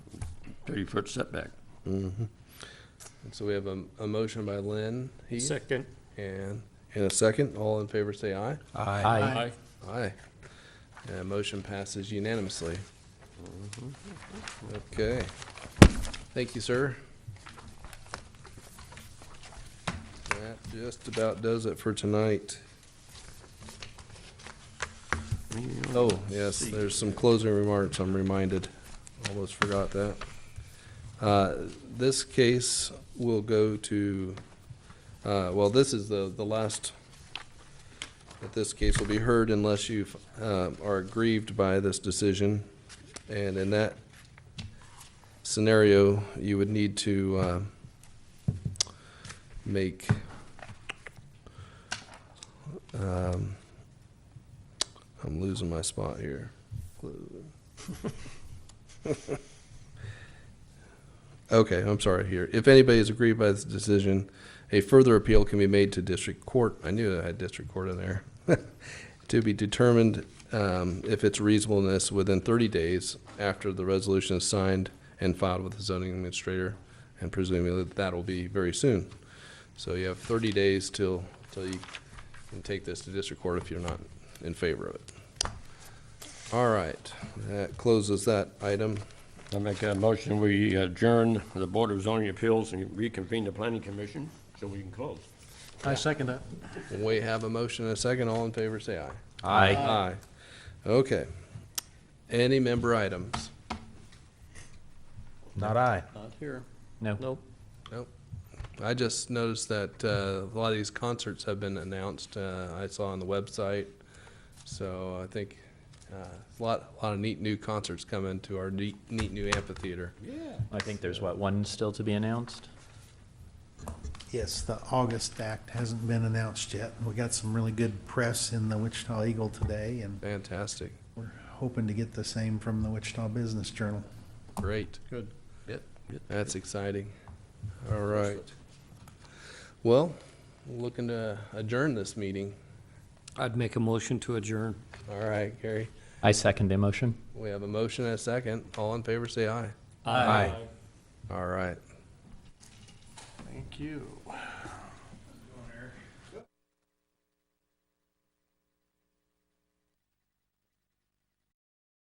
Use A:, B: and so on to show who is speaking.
A: 30-foot setback.
B: And so we have a, a motion by Lynn Heath.
C: Second.
B: And, and a second. All in favor say aye.
D: Aye.
B: Aye. And motion passes unanimously. Okay. Thank you, sir. That just about does it for tonight. Oh, yes, there's some closing remarks, I'm reminded. Almost forgot that. Uh, This case will go to, uh, well, this is the, the last that this case will be heard unless you um, are aggrieved by this decision. And in that scenario, you would need to um, make um, I'm losing my spot here. Okay, I'm sorry here. If anybody is aggrieved by this decision, a further appeal can be made to district court. I knew I had district court in there. To be determined um, if its reasonableness within 30 days after the resolution is signed and filed with the zoning administrator, and presumably that'll be very soon. So you have 30 days till, till you can take this to district court if you're not in favor of it. All right, that closes that item.
A: I make a motion, we adjourn the Board of Zoning Appeals and reconvene the Planning Commission so we can close.
C: I second that.
B: We have a motion and a second. All in favor, say aye.
D: Aye.
B: Aye. Okay. Any member items?
D: Not aye.
B: Not here.
D: No.
B: Nope. I just noticed that uh, a lot of these concerts have been announced. uh, I saw on the website. So I think uh, a lot, a lot of neat new concerts coming to our neat, neat new amphitheater.
D: I think there's, what, one still to be announced?
E: Yes, the August Act hasn't been announced yet. We got some really good press in the Wichita Eagle today, and
B: Fantastic.
E: we're hoping to get the same from the Wichita Business Journal.
B: Great.
C: Good.
B: Yep. That's exciting. All right. Well, looking to adjourn this meeting.
C: I'd make a motion to adjourn.
B: All right, Gary.
D: I second the motion.
B: We have a motion and a second. All in favor, say aye.
D: Aye.
B: All right.
C: Thank you.